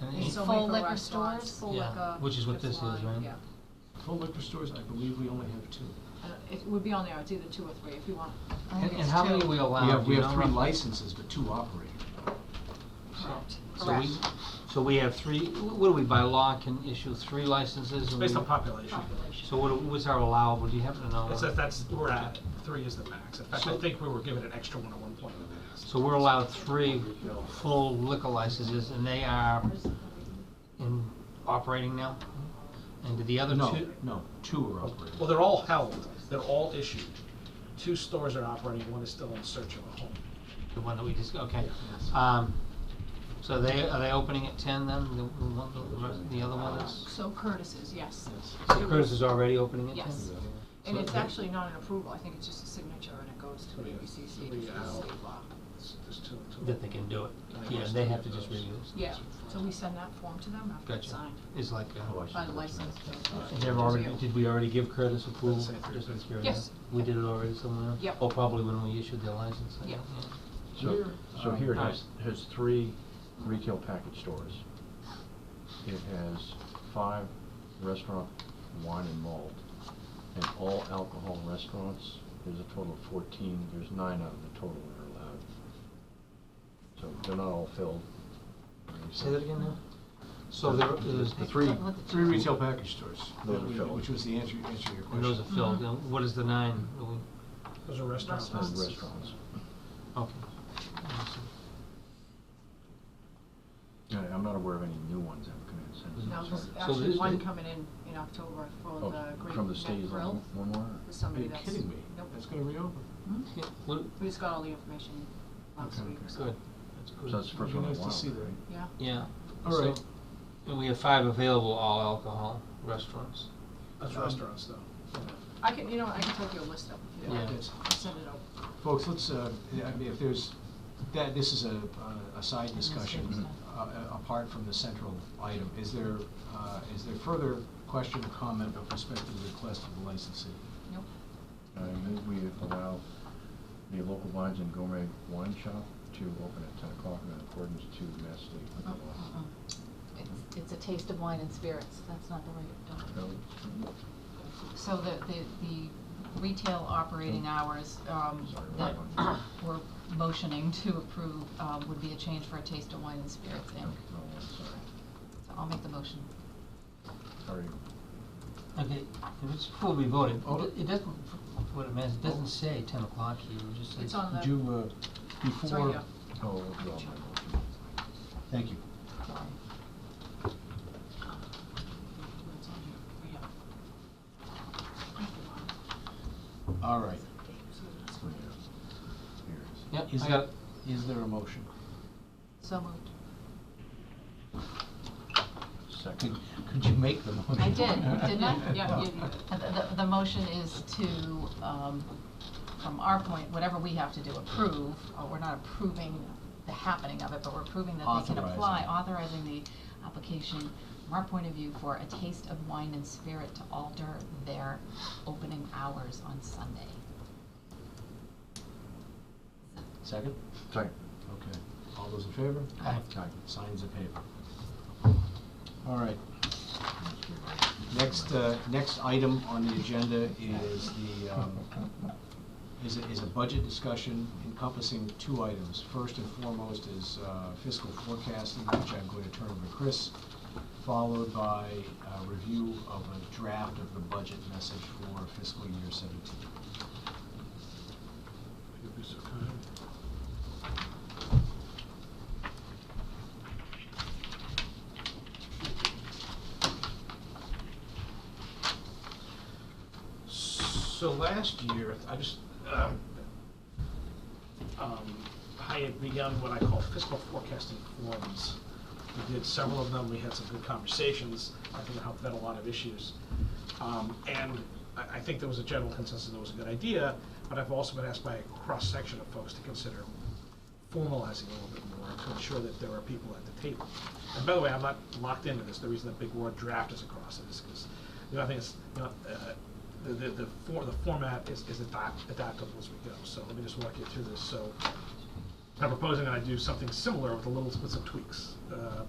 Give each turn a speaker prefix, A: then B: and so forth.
A: And
B: There's
A: it-
B: so
C: Full
B: many for
C: liquor
B: restaurants,
C: stores?
B: Full
A: Yeah,
B: liquor.
A: which is what this is,
B: salon,
A: right?
B: Yeah.
A: Full liquor stores, I believe we only have two.
B: I don't- It would be on there, it's either two or three, if you want.
C: I
A: And,
C: think
A: and
C: Oh, it's
A: how many
C: two.
A: we allow?
D: We have,
A: Do
D: we
A: you
D: have
A: know
D: three
A: roughly?
D: licenses, but two operate.
C: Correct.
A: So we, so we have three, wh- what do we, by law, can issue three licenses? and
E: Based
A: we-
E: on population.
B: Population.
A: So what, do- what's our allowable, do you happen to know?
E: It says that's, we're at, three is the max. In fact, I
A: So-
E: think we were given an extra one at one point. in the past.
A: So we're allowed three full liquor licenses, and they are in, operating now? And do the other two?
D: No, no, two are operating.
E: Well, they're all held, they're all issued. Two stores are operating, one is still in search of a home.
A: The one that we just, okay. Um, so they, are they opening at ten then, the, the one- the rest- the other one is?
B: So Curtis's, yes.
A: So Curtis is already opening at ten?
B: Yes. And
A: So
B: it's
A: the-
B: actually not an approval, I think it's just a signature and it goes to
E: Yeah.
B: ABCC,
E: Yeah.
B: which is the state law.
E: There's there's two, two.
A: That they can do it, yeah, they have to just review it.
B: Yeah, so we send that form to them after it's
A: Gotcha,
B: signed.
A: it's like,
D: Oh,
A: uh,
D: I see.
B: By the license.
A: And They've already, did we already give Curtis approval?
E: Let's say three
A: Just out of
E: fifty.
A: curiosity.
B: Yes.
A: We did it already somewhere else?
B: Yep.
A: Or probably when we issued their license? I
B: Yep.
A: think,
F: So, so
D: uh,
F: here it
A: Alright.
F: has, has three retail package stores. It has five restaurant wine and malt, and all alcohol restaurants, there's a total of fourteen, there's nine out of the total that are allowed. So they're not all filled.
A: yeah. Say that again now? So there is,
F: The three,
D: Three retail package stores,
F: Those are
D: that we-
F: filled.
D: which was the answer, answer to your
A: and those
D: question.
A: are
B: Mm-hmm.
A: filled, and what is the nine? that we-
E: Those are restaurants.
F: those are restaurants.
A: Okay.
F: I- I'm not aware of any new ones that have come in since.
B: Now, there's
A: So
B: actually
A: this-
B: one coming in, in October for
F: Oh,
B: the Great
F: From the
B: Neck
F: state, is
B: Grill,
F: one one more?
B: with
D: Are
B: somebody
D: you
B: that's.
D: kidding me?
B: Nope, Hmm?
D: That's gonna reopen?
A: Yeah, what-
B: we just got all the information last
D: Okay,
B: week,
D: okay.
B: so,
A: Good. That's good.
F: So that's the
D: It'd
F: first
D: be
F: one in a
D: nice to
F: while,
D: see
F: right?
D: that.
B: yeah.
A: Yeah.
D: All right.
A: So- And we have five available all alcohol restaurants.
E: Those
D: Um,
E: restaurants, though.
B: I can, you know, I can take you a list up if you
A: Yeah.
B: like,
D: That's-
B: send it over.
D: Folks, let's, uh, I mean, if there's, that, this is a, a side discussion, uh, uh, apart from the central item. Is there, uh, is there further question or comment with respect to the request of the licensee?
B: Nope.
F: I move Uh, we allow the local wines and gourmet wine shop to open at ten o'clock in accordance to Mass State liquor
B: Oh, uh-huh.
F: law.
C: Oh, It's, it's a taste of wine and spirits, that's not the right, uh,
F: No?
C: So the, the, the retail operating hours, um,
F: Sorry,
C: that
F: right one.
C: we're motioning to approve, um, would be a change for a taste of wine and spirits,
F: No,
C: and
F: I'm sorry.
C: so I'll make the motion.
F: Sorry.
A: Okay, if it's before we voted,
D: Oh.
A: it it doesn't, what it means, it doesn't say ten o'clock here, it just says.
B: It's on the.
D: Would you, uh,
B: It's right
D: before,
B: here.
F: Oh, withdraw my motion.
D: thank you.
B: It's on here, right here.
D: All right.
F: Yeah. Here it is.
A: Yep,
D: Is
A: I got
D: that-
A: it.
D: Is there a motion?
C: So moved.
D: Could, could you make the motion?
C: I did, didn't I?
B: Yeah, you did.
C: And The, the- the motion is to, um, from our point, whatever we have to do, approve, or we're not approving the happening of it, but we're approving that they can apply, authorizing the application, from our point of view, for a taste of wine and spirit to alter their opening hours on Sunday.
D: Second?
F: Sorry.
D: Okay. All those in favor?
C: Aye.
F: Aye.
D: Signs of paper. All right. Next, uh, next item on the agenda is the, um, is a, is a budget discussion encompassing two items. First and foremost is uh, fiscal forecasting, which I'm going to turn over to Chris, followed by a review of a draft of the budget message for fiscal year seventeen.
E: You'd be so kind. So last year, I just, um, um, I had begun what I call fiscal forecasting forums. We did several of them, we had some good conversations, I think it helped vet a lot of issues. Um, And I, I think there was a general consensus that it was a good idea, but I've also been asked by a cross-section of folks to consider formalizing a little bit more to ensure that there are people at the table. And by the way, I'm not locked into this, the reason the big word draft is across it is because, you know, I think it's, you know, uh, the, the, the for, the format is, is adapt, adaptable as we go, so let me just walk you through this, so. I'm proposing that I do something similar with a little, with some tweaks. Uh,